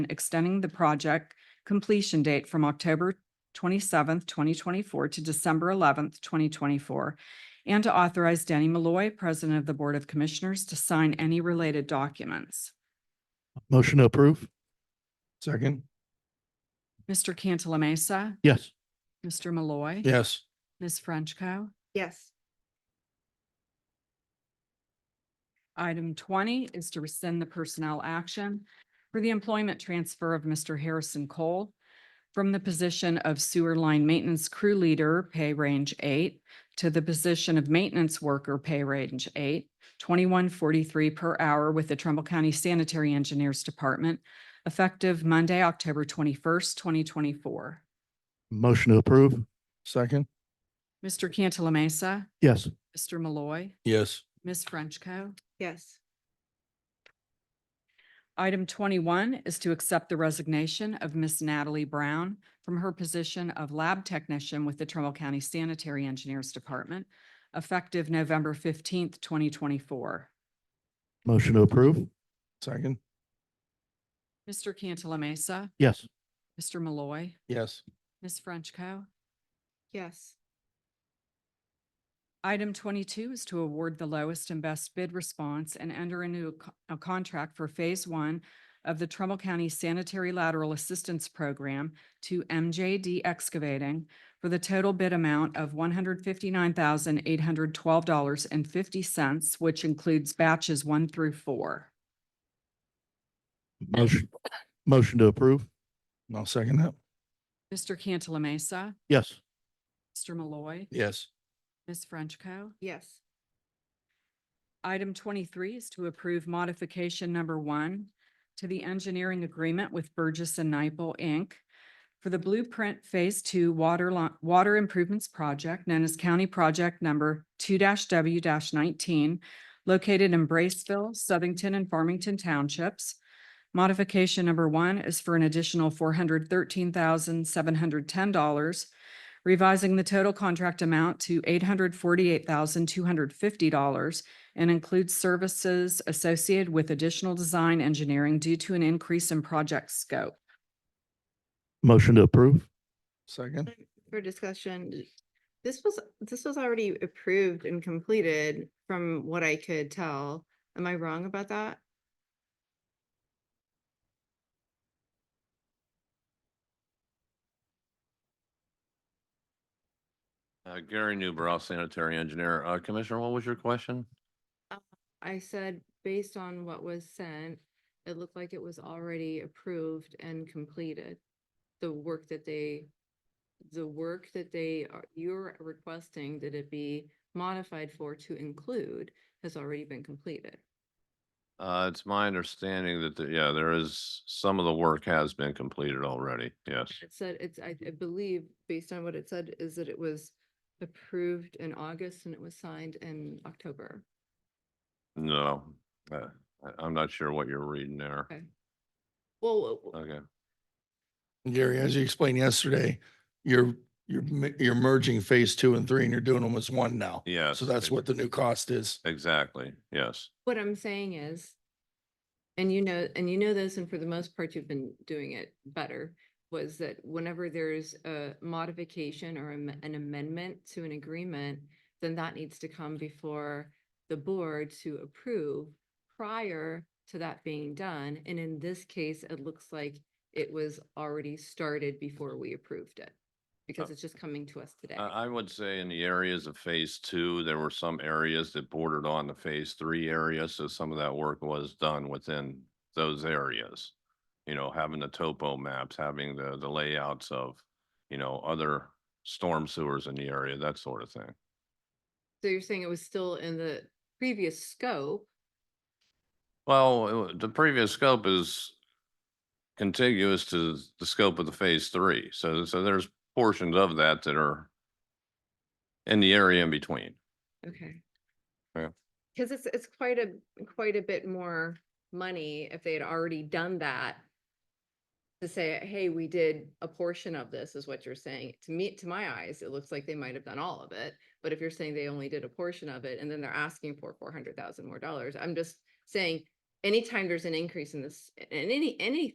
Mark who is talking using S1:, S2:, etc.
S1: extending the project completion date from October twenty-seventh, twenty twenty-four to December eleventh, twenty twenty-four, and to authorize Danny Malloy, President of the Board of Commissioners, to sign any related documents.
S2: Motion to approve. Second.
S1: Mr. Cantala Mesa,
S2: Yes.
S1: Mr. Malloy.
S2: Yes.
S1: Ms. Frenchco.
S3: Yes.
S1: Item twenty is to rescind the personnel action for the employment transfer of Mr. Harrison Cole from the position of sewer line maintenance crew leader, pay range eight, to the position of maintenance worker, pay range eight, twenty-one forty-three per hour with the Trumbull County Sanitary Engineers Department, effective Monday, October twenty-first, twenty twenty-four.
S2: Motion to approve. Second.
S1: Mr. Cantala Mesa,
S2: Yes.
S1: Mr. Malloy,
S2: Yes.
S1: Ms. Frenchco.
S3: Yes.
S1: Item twenty-one is to accept the resignation of Miss Natalie Brown from her position of lab technician with the Trumbull County Sanitary Engineers Department, effective November fifteenth, twenty twenty-four.
S2: Motion to approve. Second.
S1: Mr. Cantala Mesa,
S2: Yes.
S1: Mr. Malloy,
S2: Yes.
S1: Ms. Frenchco.
S3: Yes.
S1: Item twenty-two is to award the lowest and best bid response and enter into a co- a contract for Phase One of the Trumbull County Sanitary Lateral Assistance Program to MJD Excavating for the total bid amount of one hundred fifty-nine thousand eight hundred twelve dollars and fifty cents, which includes batches one through four.
S2: Motion. Motion to approve. I'll second that.
S1: Mr. Cantala Mesa,
S2: Yes.
S1: Mr. Malloy,
S2: Yes.
S1: Ms. Frenchco.
S3: Yes.
S1: Item twenty-three is to approve modification number one to the engineering agreement with Burgess and Nyepel, Inc. for the Blueprint Phase Two Water Lo- Water Improvements Project known as County Project Number two W nineteen located in Braceville, Southington, and Farmington Townships. Modification number one is for an additional four hundred thirteen thousand seven hundred ten dollars revising the total contract amount to eight hundred forty-eight thousand two hundred fifty dollars and includes services associated with additional design engineering due to an increase in project scope.
S2: Motion to approve. Second.
S3: For discussion, this was, this was already approved and completed from what I could tell. Am I wrong about that?
S4: Uh, Gary Newbrow, sanitary engineer. Uh, Commissioner, what was your question?
S3: I said, based on what was sent, it looked like it was already approved and completed. The work that they, the work that they, are you're requesting that it be modified for to include has already been completed.
S4: Uh, it's my understanding that, the- yeah, there is, some of the work has been completed already. Yes.
S3: It said, it's, I, I believe, based on what it said, is that it was approved in August and it was signed in October.
S4: No, uh, I, I'm not sure what you're reading there.
S3: Okay. Well,
S4: Okay.
S5: Gary, as you explained yesterday, you're, you're, mi- you're merging phase two and three and you're doing them as one now.
S4: Yes.
S5: So that's
S4: ex-
S5: what the new cost is.
S4: Exactly. Yes.
S3: What I'm saying is, and you know, and you know this, and for the most part, you've been doing it better, was that whenever there's a modification or am- an amendment to an agreement, then that needs to come before the board to approve prior to that being done. And in this case, it looks like it was already started before we approved it, because it's just coming to us today.
S4: Uh, I, I would say in the areas of phase two, there were some areas that bordered on the phase three area. So some of that work was done within those areas. You know, having the topo maps, having the, the layouts of, you know, other storm sewers in the area, that sort of thing.
S3: So you're saying it was still in the previous scope?
S4: Well, it wa- the previous scope is contiguous to the scope of the phase three. So, so there's portions of that that are in the area in between.
S3: Okay.
S4: Yeah.
S3: Cause it's, it's quite a, quite a bit more money if they had already done that. To say, hey, we did a portion of this is what you're saying. To me, to my eyes, it looks like they might have done all of it. But if you're saying they only did a portion of it and then they're asking for four hundred thousand more dollars, I'm just saying. Anytime there's an increase in this, in any, any